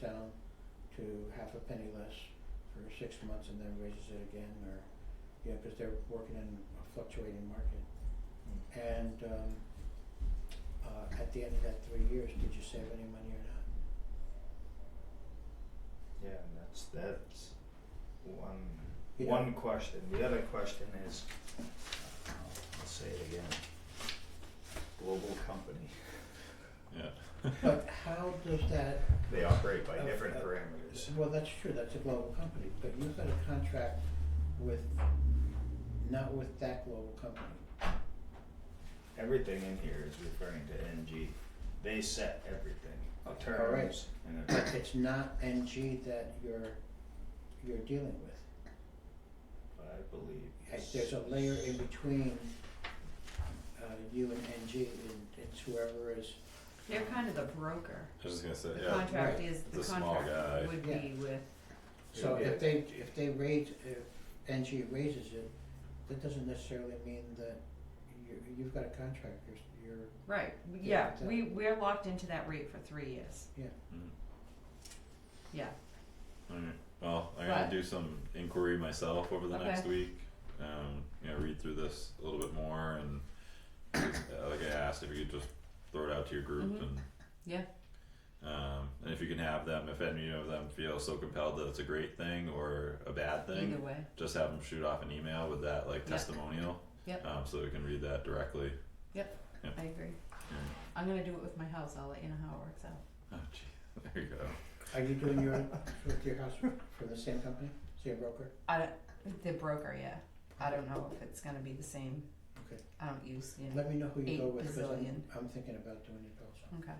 down to half a penny less for six months and then raises it again or, you know, cause they're working in a fluctuating market. And um uh at the end of that three years, did you save any money or not? Yeah, and that's that's one You know- one question. The other question is, uh, I'll say it again. Global company. Yeah. But how does that, They operate by Uh, different uh, parameters. well, that's true, that's a global company, but you've got a contract with, not with that global company. Everything in here is referring to NG. They set everything, the Okay, all right. terms, and But everything. it's not NG that you're, you're dealing with. I believe. Uh, There's a layer in between uh you and NG and it's whoever is, They're kind of the broker. I was just gonna say, The yeah, contract Right. is, the The small guy. contract would Yeah. be with, so Yeah. if they, if they raise, if NG raises it, that doesn't necessarily mean that you, you've got a contract, you're, you're, right, Yeah, yeah, exactly. we, we're locked into that rate for three years, Mm. yeah. Alright, well, I gotta But- do some inquiry myself over the next Okay. week. Um, you know, read through this a little bit more and uh, like I asked, if you could just throw it out to your group Mhm. and. Yeah. Um, and if you can have them, if any of them feel so compelled that it's a great thing or a bad Either thing, way, just have them shoot off an email with that like Yeah. testimonial. Yep. Um, so we can read that directly. I agree. Mm. I'm gonna do it with my house, I'll let you know how it works out. Oh gee, there you go. are you doing your, with your house for the same company, same broker? I, don't- the broker, yeah, I don't know if it's gonna be the same. Okay. I don't use, you know, Let me know who you go Eight with, cause I'm, bazillion. I'm thinking about doing it also. okay,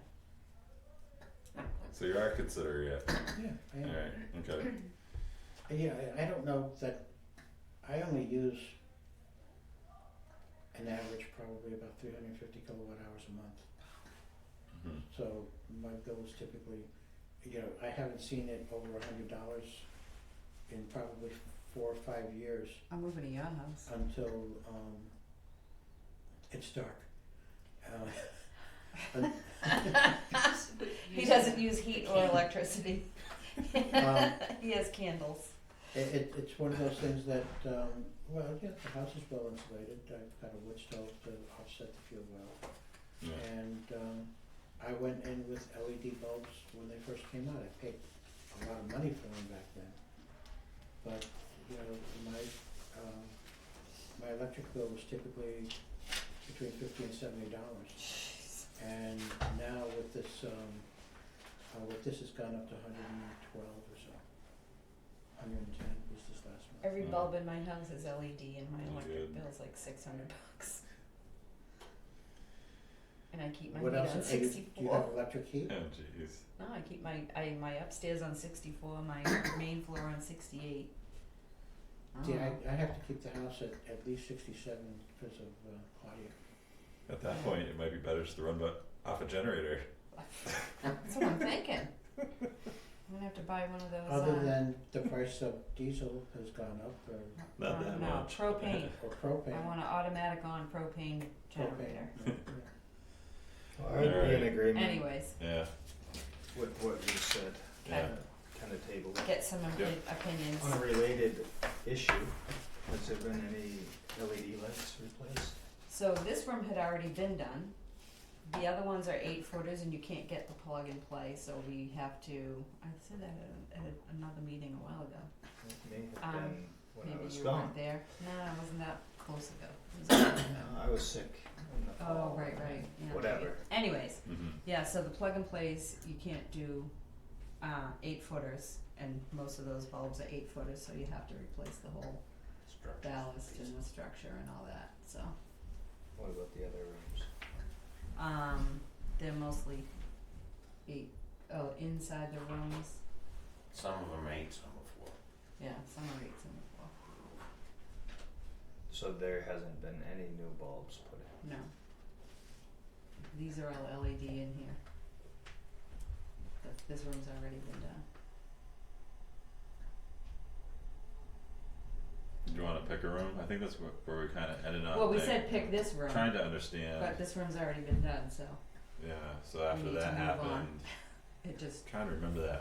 So you are considering it. Yeah, I am. Alright, okay. Yeah, I, I don't know that, I only use an average probably about three hundred and fifty kilowatt hours a month. Mhm. Mm-hmm. So my bill is typically, you know, I haven't seen it over a hundred dollars in probably four or five years I'm moving to your house, until um it's dark. Uh, un- he doesn't use heat or electricity, um, he has candles. It, it, it's one of those things that, um, well, yeah, the house is well insulated, I've got a wood stove to offset the fuel well. Yeah. And, um, I went in with LED bulbs when they first came out, I paid a lot of money for them back then. But, you know, my, um, my electric bill was typically between fifty and seventy dollars. And now with this, um, uh, with this, it's gone up to hundred and twelve or so. Hundred and ten was this last month. Every Mm. bulb in my house is LED and my That's electric good. bill's like six hundred bucks. And I keep my What heat else, on are you, do you have sixty-four, electric heat? Oh jeez. no, I keep my, I, my upstairs on sixty-four, my main floor on sixty-eight. See, Oh. I, I have to keep the house at, at least sixty-seven because of, uh, Claudia. At that point, it might be better just to run bu- off a generator. That's what I'm thinking. I'm gonna have to buy one of those, uh. Other than the price of diesel has gone up or, Not no, that um, no, much. propane, or propane. I want an automatic on propane generator, propane, yeah, yeah. I'd be in Alright. agreement anyways, Yeah, with what you said, yeah. kinda table it. get some Yeah. opi- opinions. On a related issue, has there been any LED lights replaced? So this room had already been done. The other ones are eight footers and you can't get the plug and play, so we have to, I said that at, a- at another meeting a while ago. It may have Um, been when I Maybe was you gone. weren't there. No, I wasn't that close ago. It was- No, Uh, I was sick in the Oh, fall. right, right, yeah. maybe. Whatever. Anyways, hmm yeah, so the plug and plays, you can't do, uh, eight footers and most of those bulbs are eight footers, so you have to replace the whole ballast and the structure and all that, so. What about the other rooms? Um, they're mostly eight, oh, inside the rooms, Some of them eight, some of four. yeah, some are eight, some are four, So there hasn't been any new bulbs put in. no. These are all LED in here. Th- this room's already been done. Do you want to pick a room? I think that's where, where we kind of ended up. Well, we like, said pick this room, Oh, Trying to uh, understand. but this room's already been done, so yeah. So after need that to move on. happened, it just trying to remember that